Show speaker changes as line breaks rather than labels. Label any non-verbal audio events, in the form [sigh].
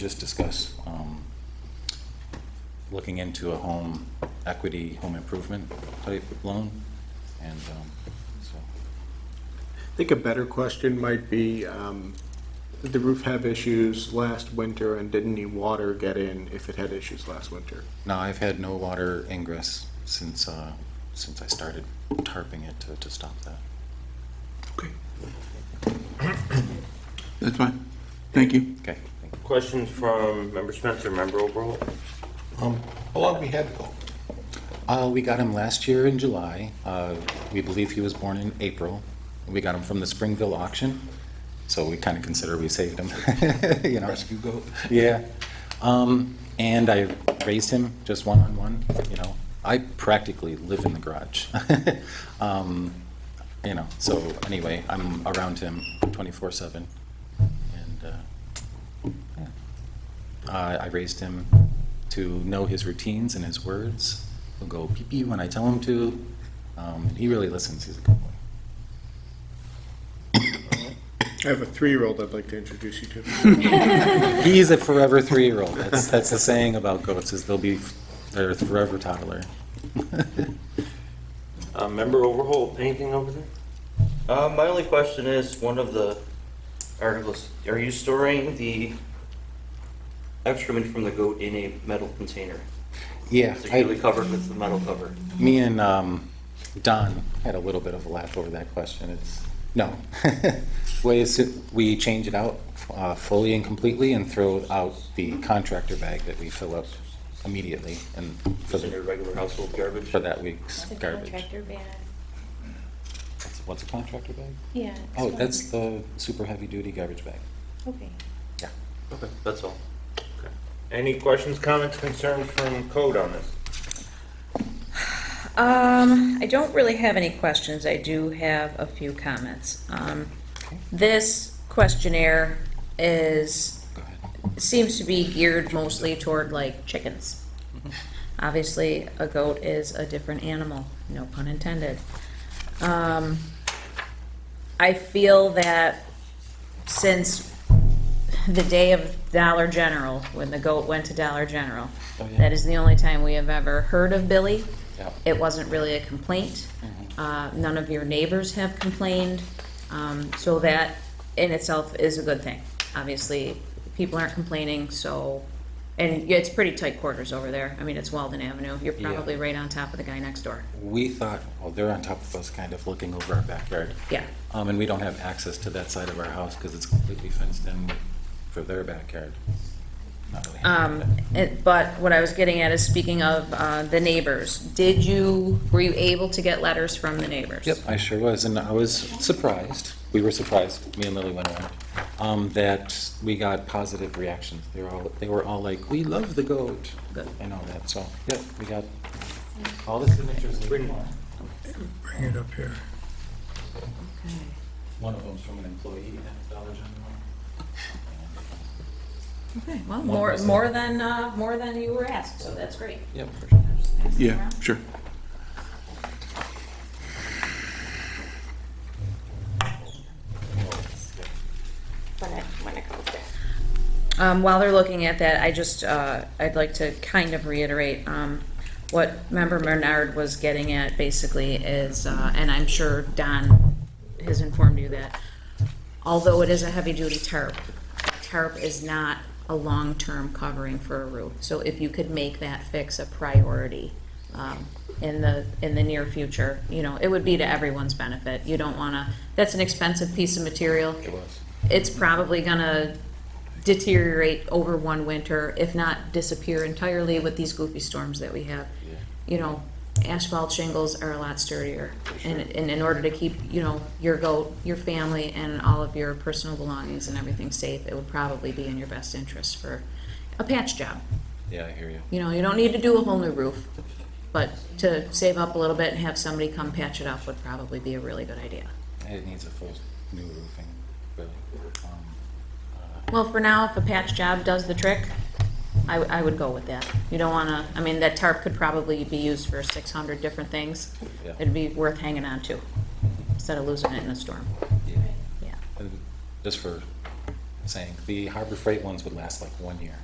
just discuss um, looking into a home equity, home improvement type loan, and um, so,
I think a better question might be, um, did the roof have issues last winter and did any water get in if it had issues last winter?
no, I've had no water ingress since, uh, since I started tarping it to- to stop that.
That's fine. Thank you.
Okay, thank you.
Questions from member Spencer, member Oberhold?
How long we had ago?
Uh, we got him last year in July. Uh, we believe he was born in April. We got him from the Springville auction, so we kind of consider we saved him. [laughs] you know,
Rescue goat?
yeah. Um, and I raised him just one on one. You know, I practically live in the garage. [laughs] um, you know, so anyway, I'm around him 24 seven, and uh, yeah. Uh, I raised him to know his routines and his words. He'll go pee pee when I tell him to. Um, he really listens. He's a good boy.
I have a three-year-old I'd like to introduce you to.
He's a forever three-year-old. That's that's the saying about goats is they'll be they're a forever toddler. [laughs]
Uh, member Overholt, anything over there?
Uh, my only question is, one of the articles, are you storing the excrement from the goat in a metal container?
Yeah,
Securely
I,
covered with the metal cover?
me and um, Don had a little bit of a laugh over that question. It's no. [laughs] Way is it- we change it out uh, fully and completely and throw out the contractor bag that we fill up immediately and for
Just in your
the,
regular household garbage?
for that week's
The
garbage.
contractor band,
What's a contractor bag?
yeah.
Oh,
so-
that's the super heavy-duty garbage bag.
Okay.
Yeah.
Okay, that's all.
Any questions, comments, concerns from code on this?
Um, I don't really have any questions. I do have a few comments. Um, this questionnaire is,
Go ahead.
seems to be geared mostly toward like chickens.
Mm-hmm.
Obviously, a goat is a different animal, no pun intended. Um, I feel that since the day of Dollar General, when the goat went to Dollar General,
Oh, yeah.
that is the only time we have ever heard of Billy.
Yeah. Mm-hmm.
It wasn't really a complaint. Uh, None of your neighbors have complained. Um, So that in itself is a good thing. Obviously, people aren't complaining, so, and yeah, it's pretty tight quarters over there. I mean, it's Walden Avenue. You're
Yeah.
probably right on top of the guy next door.
We thought, well, they're on top of us, kind of looking over our backyard.
Yeah.
Um, and we don't have access to that side of our house because it's completely fenced in for their backyard. Not really
Um,
handy,
it- But what I was getting at is, speaking of uh, the neighbors, did you, were you able to get letters from the neighbors?
but- Yep, I sure was, and I was surprised, we were surprised, me and Lily went around, um, that we got positive reactions. They were all, they were all like, we love the goat,
Good.
and all that, so, yep, we got all the signatures. we want.
Bring it up here.
One of them's from an employee at Dollar General.
Okay, well,
One
more,
was-
more than, uh, more than you were asked, so that's great.
Yep, for sure.
Yeah, sure.
When it, when it comes down.
Um, while they're looking at that, I just, uh, I'd like to kind of reiterate, um, what member Bernard was getting at basically is, uh, and I'm sure Don has informed you that, although it is a heavy-duty tarp, tarp is not a long-term covering for a roof. So if you could make that fix a priority, um, in the, in the near future, you know, it would be to everyone's benefit. You don't wanna, that's an expensive piece of material.
It was.
It's probably gonna deteriorate over one winter, if not disappear entirely with these goofy storms that we have.
Yeah.
You know, asphalt shingles are a lot sturdier. And, and in order to keep, you know, your goat, your family, and all of your personal belongings and everything safe, it would probably be in your best interest for a patch job.
Yeah, I hear you.
You know, you don't need to do a whole new roof, but to save up a little bit and have somebody come patch it up would probably be a really good idea.
It needs a full new roofing, really. Um, uh,
Well, for now, if a patch job does the trick, I, I would go with that. You don't wanna, I mean, that tarp could probably be used for six hundred different things.
Yeah.
It'd be worth hanging on to, instead of losing it in a storm,
yeah.
yeah.
And just for saying. The Harbor Freight ones would last like one year.